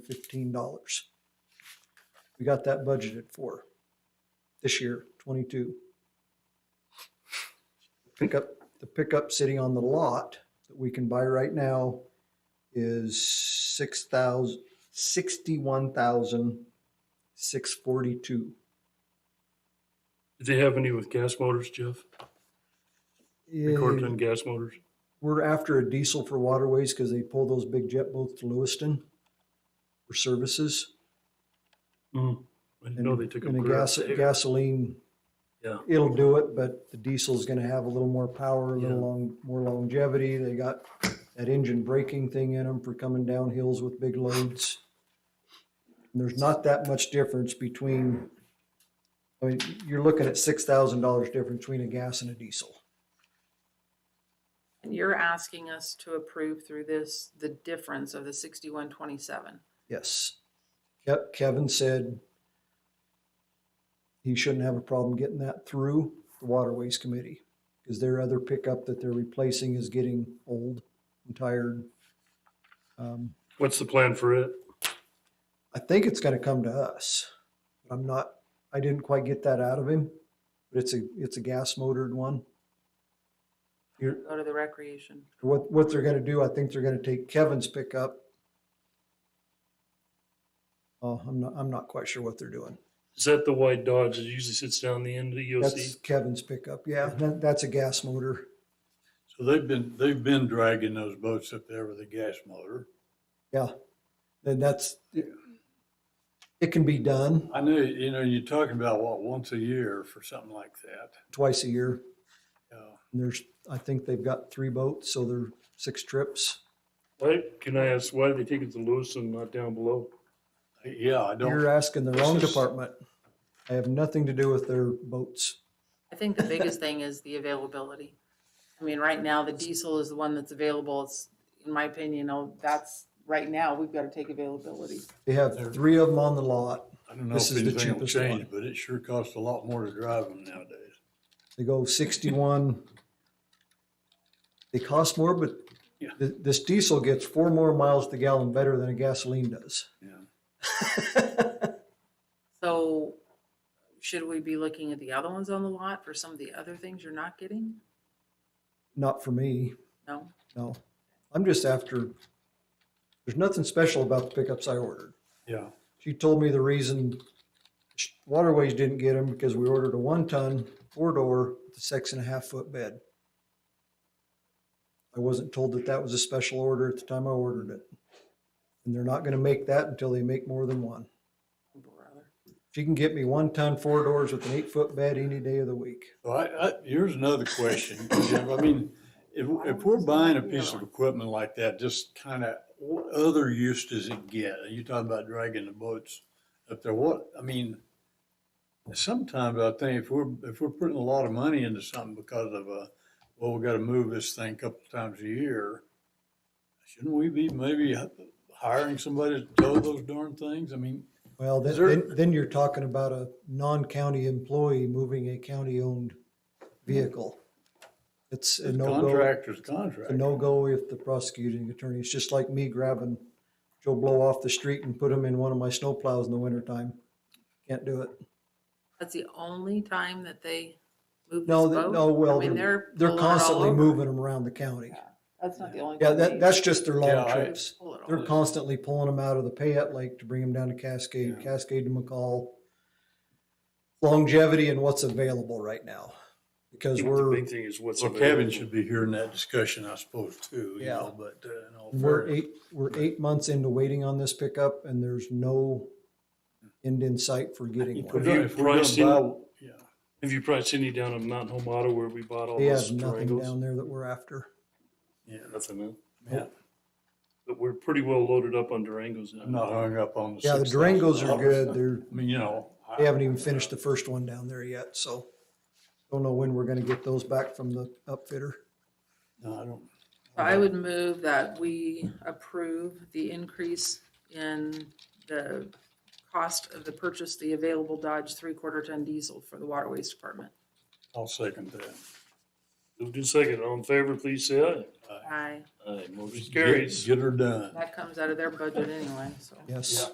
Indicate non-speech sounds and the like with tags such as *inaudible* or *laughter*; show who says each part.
Speaker 1: fifteen dollars. We got that budgeted for this year, twenty-two. Pickup, the pickup sitting on the lot that we can buy right now is six thousand, sixty-one thousand, six forty-two.
Speaker 2: Did they have any with gas motors, Jeff? Recorded on gas motors?
Speaker 1: We're after a diesel for waterways because they pull those big jet boats to Lewiston for services.
Speaker 2: Mm. I didn't know they took
Speaker 1: and
Speaker 2: them.
Speaker 1: a gas, gasoline.
Speaker 2: Yeah.
Speaker 1: It'll do it, but the diesel's gonna have a little more power, a little
Speaker 2: Yeah.
Speaker 1: long, more longevity. They got that engine braking thing in them for coming down hills with big loads. And There's not that much difference between, I mean, you're looking at six thousand dollars difference between a gas and a diesel.
Speaker 3: And you're asking us to approve through this, the difference of the sixty-one twenty-seven.
Speaker 1: Yes. Yep, Kevin said he shouldn't have a problem getting that through the Waterways Committee. Because their other pickup that they're replacing is getting old and tired. Um,
Speaker 2: What's the plan for it?
Speaker 1: I think it's gonna come to us. but I'm not, I didn't quite get that out of him, but it's a, it's a gas motored one. You're,
Speaker 3: Go to the recreation.
Speaker 1: what, what they're gonna do, I think they're gonna take Kevin's pickup. Oh, I'm not, I'm not quite sure what they're doing.
Speaker 2: Is that the white Dodge that usually sits down the end of the E
Speaker 1: That's
Speaker 2: EOC?
Speaker 1: Kevin's pickup, yeah, that, that's a gas motor.
Speaker 4: So they've been, they've been dragging those boats up there with a gas motor.
Speaker 1: Then that's, it can be done
Speaker 4: I know, you know, you're talking about what, once a year for something like that.
Speaker 1: twice a year.
Speaker 4: Yeah.
Speaker 1: And there's, I think they've got three boats, so they're six trips.
Speaker 2: Why, can I ask, why did they take it to Lewis and not down below?
Speaker 4: Yeah, I
Speaker 1: You're
Speaker 4: don't,
Speaker 1: asking the wrong
Speaker 4: This is-
Speaker 1: department. I have nothing to do with their boats.
Speaker 3: I think the
Speaker 1: *laughs*
Speaker 3: biggest thing is the availability. I mean, right now, the diesel is the one that's available. It's, in my opinion, oh, that's, right now, we've got to take availability.
Speaker 1: They have three of them on the lot.
Speaker 4: I don't know
Speaker 1: this
Speaker 4: if
Speaker 1: is the
Speaker 4: anything will
Speaker 1: cheapest
Speaker 4: change,
Speaker 1: one.
Speaker 4: but it sure costs a lot more to drive them nowadays.
Speaker 1: They go sixty-one. They cost more, but
Speaker 4: Yeah.
Speaker 1: th- this diesel gets four more miles to the gallon better than a gasoline does. *laughs*
Speaker 4: Yeah.
Speaker 3: So should we be looking at the other ones on the lot for some of the other things you're not getting?
Speaker 1: Not for me.
Speaker 3: No?
Speaker 1: No, I'm just after, there's nothing special about the pickups I ordered.
Speaker 4: Yeah.
Speaker 1: She told me the reason sh- Waterways didn't get them because we ordered a one-ton, four-door, with a six and a half foot bed. I wasn't told that that was a special order at the time I ordered it. And they're not gonna make that until they make more than one.
Speaker 3: Brother.
Speaker 1: If you can get me one-ton, four-doors with an eight-foot bed any day of the week.
Speaker 4: Well, I, I, here's another question, Jim. I mean, if, if we're buying a piece of equipment like that, just kind of, what other use does it get? Are you talking about dragging the boats up there? What, I mean, sometimes I think if we're, if we're putting a lot of money into something because of a, well, we got to move this thing a couple times a year, shouldn't we be maybe hiring somebody to tow those darn things? I mean,
Speaker 1: Well, then,
Speaker 4: Is there-
Speaker 1: then, then you're talking about a non-county employee moving a county-owned vehicle. It's a no-go,
Speaker 4: contractor's
Speaker 1: a
Speaker 4: contract.
Speaker 1: no-go if the prosecuting attorney, it's just like me grabbing Joe Blow off the street and put him in one of my snowplows in the wintertime. Can't do it.
Speaker 3: That's the only time that they move this
Speaker 1: No,
Speaker 3: boat?
Speaker 1: they- no, well,
Speaker 3: I mean,
Speaker 1: they're, they're
Speaker 3: they're pulling it all
Speaker 1: constantly
Speaker 3: over.
Speaker 1: moving them around the county.
Speaker 3: That's not the only.
Speaker 1: Yeah,
Speaker 3: time
Speaker 1: that,
Speaker 3: they-
Speaker 1: that's just their
Speaker 4: Yeah,
Speaker 1: long
Speaker 4: I-
Speaker 1: trips.
Speaker 3: Pull it all.
Speaker 1: They're constantly pulling them out of the Payette Lake to bring them down to Cascade,
Speaker 4: Yeah.
Speaker 1: Cascade to McCall. Longevity and what's available right now,
Speaker 2: I
Speaker 1: because
Speaker 2: think The
Speaker 1: we're,
Speaker 2: big thing is what's.
Speaker 4: Well,
Speaker 2: available.
Speaker 4: Kevin should be hearing that discussion, I suppose, too, you
Speaker 1: Yeah.
Speaker 4: know, but uh, in all
Speaker 1: we're
Speaker 4: fairness.
Speaker 1: eight, we're eight months into waiting on this pickup and there's no end in sight for getting
Speaker 4: If we're
Speaker 1: one.
Speaker 4: gonna- if we're gonna
Speaker 2: Pricing.
Speaker 4: buy- yeah.
Speaker 2: Have you probably seen any down in Mountain Home Auto where we bought all
Speaker 1: They
Speaker 2: those
Speaker 1: have nothing
Speaker 2: triangles?
Speaker 1: down there that we're after.
Speaker 4: Yeah,
Speaker 2: Nothing, man.
Speaker 4: yeah.
Speaker 2: But we're pretty well loaded up on Durangos now.
Speaker 4: I'm not hung up on the.
Speaker 1: Yeah, the Durangos are
Speaker 4: $6,000.
Speaker 1: good. They're,
Speaker 4: I mean, you know. I-
Speaker 1: they haven't even finished the first one down there yet, so. Don't know when we're gonna get those back from the upfitter.
Speaker 4: No, I don't.
Speaker 3: So I would move that we approve the increase in the cost of the purchase, the available Dodge three-quarter ton diesel for the Waterways Department.
Speaker 4: I'll second that.
Speaker 2: Moved in second. All in favor, please say aye.
Speaker 3: Aye,
Speaker 4: Aye.
Speaker 5: Aye, motion
Speaker 4: Get-
Speaker 5: carries.
Speaker 4: Get her done.
Speaker 3: that comes out of their budget anyway, so.
Speaker 1: Yes.